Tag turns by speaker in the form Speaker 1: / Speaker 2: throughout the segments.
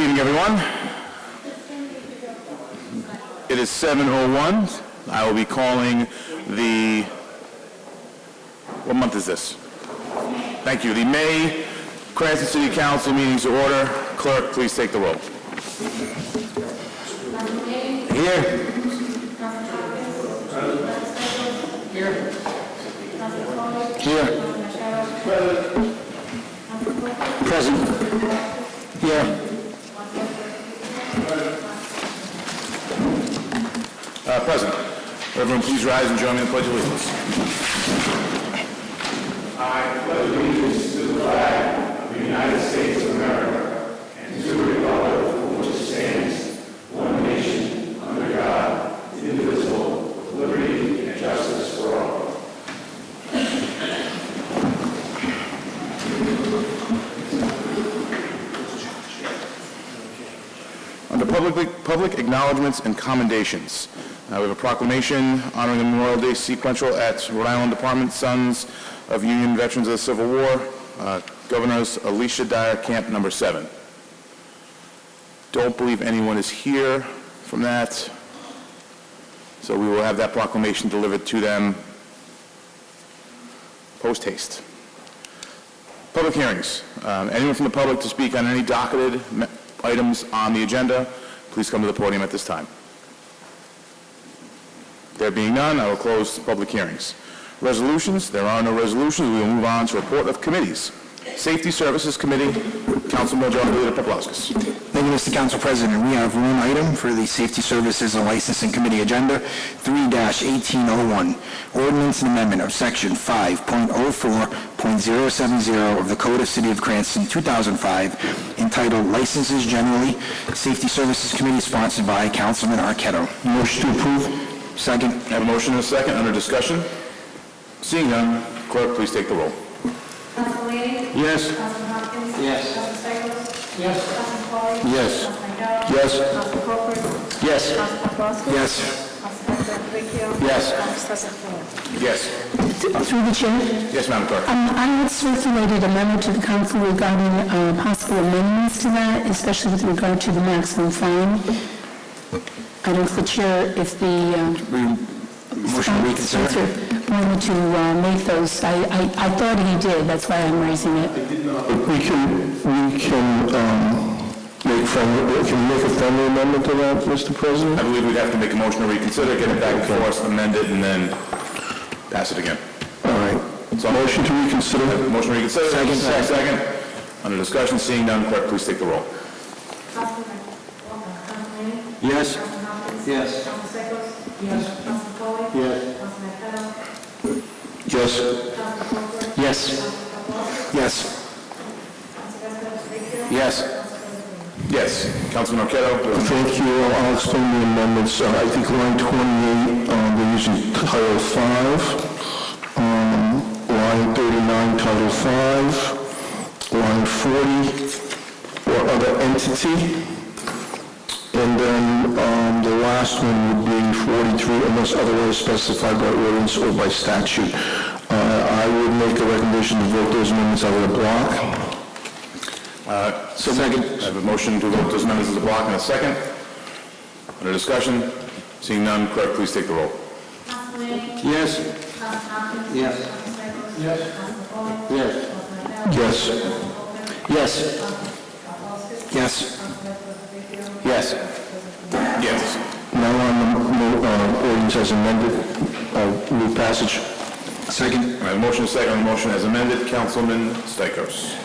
Speaker 1: everyone. It is 7:01. I will be calling the, what month is this? Thank you. The May Cranston City Council meetings to order. Clerk, please take the roll. Here. Here. Present. Here. Uh, present. Everyone, please rise and join me in the Pledge of Allegiance. Under public, public acknowledgements and commendations, uh, we have a proclamation honoring the Memorial Day sequential at Rhode Island Department Sons of Union Veterans of the Civil War, uh, Governors Alicia Dyer, Camp Number Seven. Don't believe anyone is here from that, so we will have that proclamation delivered to them post haste. Public hearings. Um, Anyone from the public to speak on any docketed ma- items on the agenda, please come to the podium at this time. There being none, I will close public hearings. Resolutions, there are no resolutions, we will move on to report of committees. Safety Services Committee, Councilman Majority Leader Paploskas.
Speaker 2: Thank you, Mr. Council President. We have one item for the Safety Services and Licensing Committee Agenda, 3-1801, Ordinance and Amendment of Section 5.04.070 of the Code of City of Cranston, 2005, entitled Licenses Generally, Safety Services Committee sponsored by Councilman Arquette. Motion to approve. Second.
Speaker 1: Have a motion and a second, under discussion? Seeing none, clerk, please take the roll.
Speaker 3: Council Lanning?
Speaker 1: Yes.
Speaker 3: Council Hopkins?
Speaker 2: Yes.
Speaker 3: Council Stichels? Yes. Council Foley?
Speaker 2: Yes.
Speaker 3: Council McDowell?
Speaker 2: Yes.
Speaker 3: Council Crawford?
Speaker 2: Yes.
Speaker 3: Council Paplaskas?
Speaker 2: Yes.
Speaker 3: Council President Vecchio?
Speaker 2: Yes.
Speaker 3: Council President Ford?
Speaker 1: Yes.
Speaker 4: Through the chair,
Speaker 1: Yes, Madam Clerk.
Speaker 4: um, I had circulated a memo to the council regarding uh, possible amendments to that, especially with regard to the maximum fine. I don't know if the chair, if the um,
Speaker 2: Motion to reconsider.
Speaker 4: sponsor wanted to uh, make those. I I I thought he did, that's why I'm raising it.
Speaker 5: We can, we can um, make friendly, we can make a friendly amendment to that, Mr. President?
Speaker 1: I believe we'd have to make a motion to reconsider, get it back before us, amend it, and then pass it again.
Speaker 5: All right.
Speaker 1: So-
Speaker 5: Motion to reconsider?
Speaker 1: Motion to reconsider.
Speaker 5: Second.
Speaker 1: Second. Under discussion, seeing none, clerk, please take the roll.
Speaker 3: Council Mc- Council Lanning?
Speaker 5: Yes.
Speaker 3: Council Hopkins?
Speaker 5: Yes.
Speaker 3: Council Stichels? Yes. Council Foley?
Speaker 5: Yes.
Speaker 3: Council McDowell?
Speaker 5: Yes.
Speaker 3: Council Crawford?
Speaker 5: Yes. Yes. Yes.
Speaker 1: Yes. Councilman uh, Marqueta.
Speaker 5: Thank you. I'll explain the amendments. Uh, I think line 28, um, they're using Title 5. um, Line 39, Title 5. Line 40, or other entity. And then um, the last one would be 43, unless otherwise specified by ordinance or by statute. Uh, I would make a recommendation to vote those amendments out of the block.
Speaker 1: Second. I have a motion to vote those amendments as a block and a second. Under discussion, seeing none, clerk, please take the roll.
Speaker 3: Council Lanning?
Speaker 5: Yes.
Speaker 3: Council Hopkins?
Speaker 5: Yes.
Speaker 3: Council Stichels? Yes. Council Foley?
Speaker 5: Yes.
Speaker 3: Council McDowell? Council
Speaker 5: Yes.
Speaker 3: Crawford?
Speaker 5: Yes. Yes. Yes.
Speaker 1: Yes.
Speaker 5: Now on the mo- uh, ordinance as amended, uh, move passage. Second.
Speaker 1: I have a motion, second, on the motion as amended, Councilman Stichels.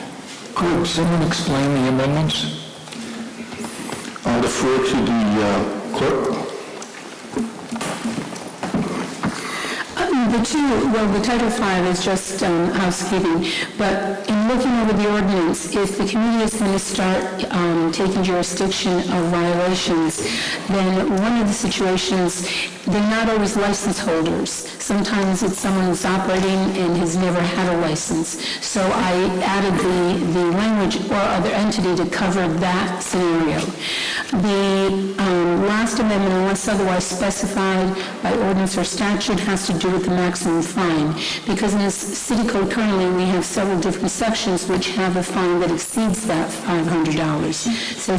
Speaker 5: Could someone explain the amendments? I'll defer to the uh, clerk.
Speaker 4: Um, The two, well, the Title V is just um, housekeeping, but in looking over the ordinance, if the community is going to start um, taking jurisdiction of violations, then one of the situations, they're not always license holders. Sometimes it's someone who's operating and has never had a license. So I added the, the language or other entity to cover that scenario. The um, last amendment, unless otherwise specified by ordinance or statute, has to do with the maximum fine. Because in this city code currently, we have several different sections which have a fine that exceeds that $500. So